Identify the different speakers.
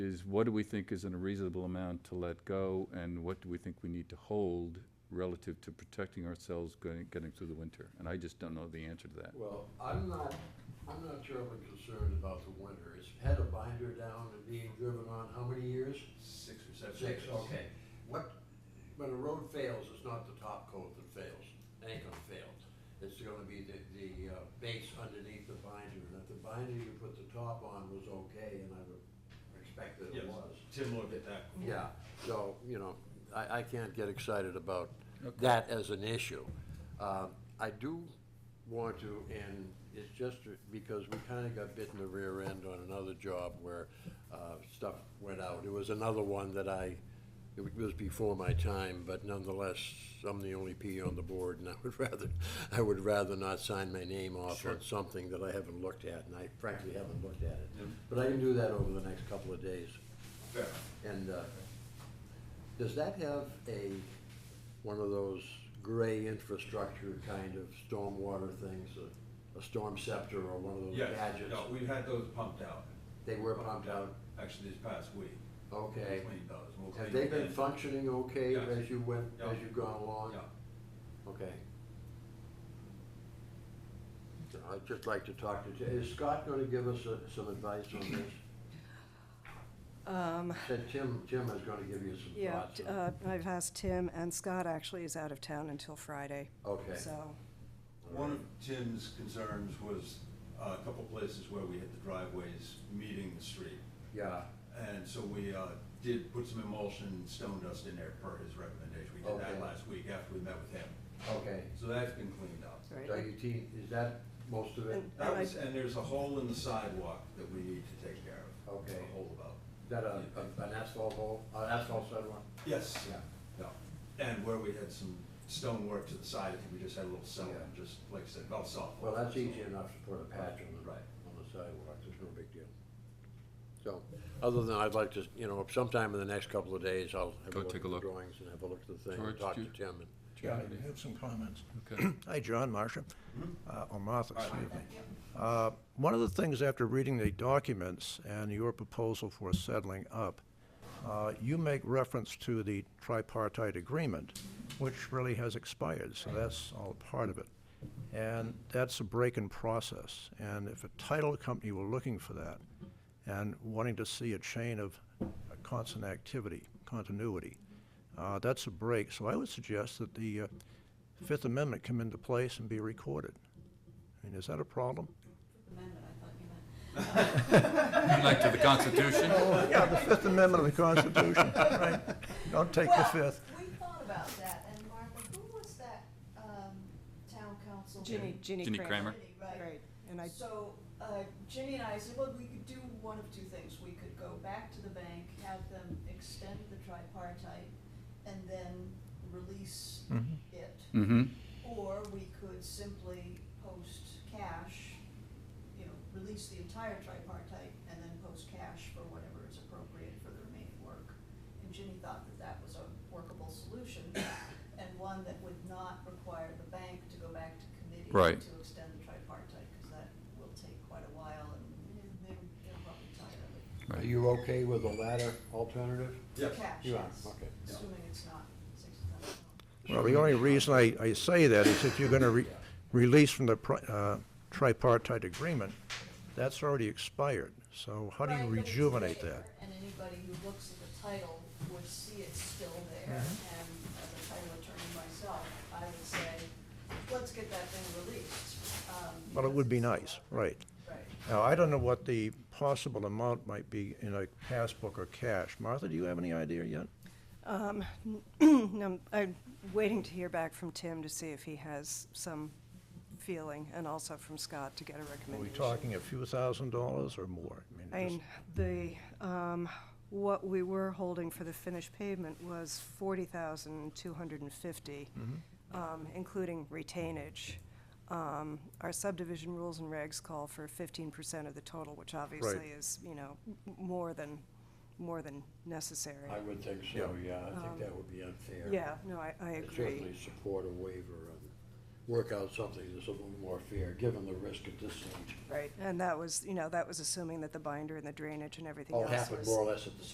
Speaker 1: is what do we think is in a reasonable amount to let go, and what do we think we need to hold relative to protecting ourselves going, getting through the winter? And I just don't know the answer to that.
Speaker 2: Well, I'm not, I'm not terribly concerned about the winter. It's had a binder down and being driven on how many years?
Speaker 3: Six or seven.
Speaker 2: Six,
Speaker 3: years.
Speaker 2: okay. What, when a road fails, it's not the top coat that fails. It ain't gonna fail. It's gonna be the, the uh, base underneath the binder. And if the binder you put the top on was okay, and I would expect that
Speaker 3: Yes,
Speaker 2: it was.
Speaker 3: Tim looked at that.
Speaker 2: Yeah, so, you know, I, I can't get excited about that as an issue. Um, I do want to, and it's just because we kind of got bit in the rear end on another job where uh, stuff went out. It was another one that I, it was before my time, but nonetheless, I'm the only P on the board, and I would rather, I would rather not sign my name off on something that I haven't looked at, and I frankly haven't looked at it. But I can do that over the next couple of days.
Speaker 3: Fair.
Speaker 2: And uh, does that have a, one of those gray infrastructure kind of stormwater things, a- a storm scepter or one of those
Speaker 3: Yes,
Speaker 2: gadgets?
Speaker 3: no, we've had those pumped out,
Speaker 2: They were pumped out,
Speaker 3: actually this past week. We
Speaker 2: okay.
Speaker 3: Cleaned those. We'll
Speaker 2: Have
Speaker 3: clean
Speaker 2: they been
Speaker 3: again.
Speaker 2: functioning okay
Speaker 3: Yes.
Speaker 2: as you went, as
Speaker 3: Yeah.
Speaker 2: you've gone along?
Speaker 3: Yeah,
Speaker 2: Okay. So I'd just like to talk to, Ti- is Scott going to give us uh, some advice on this?
Speaker 4: Um,
Speaker 2: Said Tim, Tim is going to give you some
Speaker 4: yeah,
Speaker 2: thoughts.
Speaker 4: t-
Speaker 2: on-
Speaker 4: uh, I've asked Tim, and Scott actually is out of town until Friday,
Speaker 2: Okay.
Speaker 4: so,
Speaker 3: one of Tim's concerns was uh, a couple places where we had the driveways meeting the street.
Speaker 2: Yeah,
Speaker 3: And so we uh, did put some emulsion, stone dust in there per his recommendation. We did
Speaker 2: Okay.
Speaker 3: that last week after we met with him.
Speaker 2: okay.
Speaker 3: So that's been cleaned up.
Speaker 4: right?
Speaker 2: So you te- is that most of it?
Speaker 4: And-
Speaker 3: That
Speaker 4: I-
Speaker 3: was, and there's a hole in the sidewalk that we need to take care of.
Speaker 2: Okay.
Speaker 3: A hole about.
Speaker 2: Is that a, a- an asphalt hole, an asphalt sidewalk?
Speaker 3: Yes. No, and where we had some stonework to the side, I think we just had a little cell,
Speaker 2: Yeah.
Speaker 3: just like I said, about soft.
Speaker 2: Well, that's easy enough to put a patch on the,
Speaker 3: Right.
Speaker 2: on the sidewalk, there's no big deal. So, other than I'd like to, you know, sometime in the next couple of days, I'll have a
Speaker 1: Go
Speaker 2: look
Speaker 1: take
Speaker 2: at
Speaker 1: a
Speaker 2: the
Speaker 1: look.
Speaker 2: drawings and have a look at the thing,
Speaker 1: George,
Speaker 2: and talk
Speaker 1: do
Speaker 2: to
Speaker 1: you-
Speaker 2: Tim and.
Speaker 5: Yeah, I have some comments.
Speaker 1: Okay.
Speaker 5: Hi, John, Marcia,
Speaker 3: Mhm.
Speaker 5: uh, or Martha,
Speaker 3: All right.
Speaker 5: excuse me. Uh, One of the things after reading the documents and your proposal for settling up, uh, you make reference to the tripartite agreement, which really has expired, so that's all part of it. And that's a break in process, and if a title company were looking for that and wanting to see a chain of constant activity, continuity, uh, that's a break, so I would suggest that the uh, Fifth Amendment come into place and be recorded. I mean, is that a problem?
Speaker 6: Amendment, I thought you meant.
Speaker 1: Like to the Constitution?
Speaker 5: Oh, Yeah, the Fifth Amendment of the Constitution, right? Don't take the
Speaker 6: Well,
Speaker 5: fifth.
Speaker 6: We thought about that, and Martha, who was that, um, town council?
Speaker 4: Ginny, Ginny
Speaker 1: Ginny
Speaker 4: Kramer.
Speaker 6: Ginny, Right.
Speaker 4: Right, and I,
Speaker 6: So, uh, Ginny and I said, well, we could do one of two things. We could go back to the bank, have them extend the tripartite, and then release
Speaker 5: Mhm.
Speaker 6: it.
Speaker 1: Mm-hmm.
Speaker 6: Or we could simply post cash, you know, release the entire tripartite and then post cash for whatever is appropriate for the remaining work. And Ginny thought that that was a workable solution and one that would not require the bank to go back to committee
Speaker 1: Right.
Speaker 6: to extend the tripartite, because that will take quite a while and eh, they're, they're probably tired of it.
Speaker 2: Are you okay with the latter alternative?
Speaker 3: Yes.
Speaker 6: Cash,
Speaker 2: You are,
Speaker 6: yes,
Speaker 2: okay.
Speaker 3: Yeah.
Speaker 6: assuming it's not sixty thousand dollars.
Speaker 5: Well, the only reason I, I say that is if you're going to release from the pri- uh, tripartite agreement, that's already expired. So how do you
Speaker 6: Right, but it's
Speaker 5: rejuvenate
Speaker 6: there,
Speaker 5: that?
Speaker 6: And anybody who looks at the title would see it's still there,
Speaker 5: Mm-hmm.
Speaker 6: and as a title attorney myself, I would say, let's get that thing released. um,
Speaker 5: Well, it
Speaker 6: because
Speaker 5: would be
Speaker 6: it's still
Speaker 5: nice,
Speaker 6: out there.
Speaker 5: right.
Speaker 6: Right.
Speaker 5: Now, I don't know what the possible amount might be in a passbook or cash. Martha, do you have any idea yet?
Speaker 4: um, I'm, I'm waiting to hear back from Tim to see if he has some feeling, and also from Scott to get a
Speaker 5: Are we
Speaker 4: recommendation.
Speaker 5: talking a few thousand dollars or more? I
Speaker 4: I
Speaker 5: mean,
Speaker 4: mean, the, um, what we were holding for the finished pavement was forty thousand two hundred and fifty, um, including retainage. Um, our subdivision rules and regs call for fifteen percent of the total, which obviously is, you know, m- more than, more than necessary.
Speaker 2: I would think so, yeah, I think that would be unfair.
Speaker 4: Yeah, no, I, I
Speaker 2: I
Speaker 4: agree.
Speaker 2: Certainly support a waiver of work out something that's a little more fair, given the risk at this stage.
Speaker 4: Right, and that was, you know, that was assuming that the binder and the drainage and everything
Speaker 2: All
Speaker 4: else was.
Speaker 2: happened more or less at the same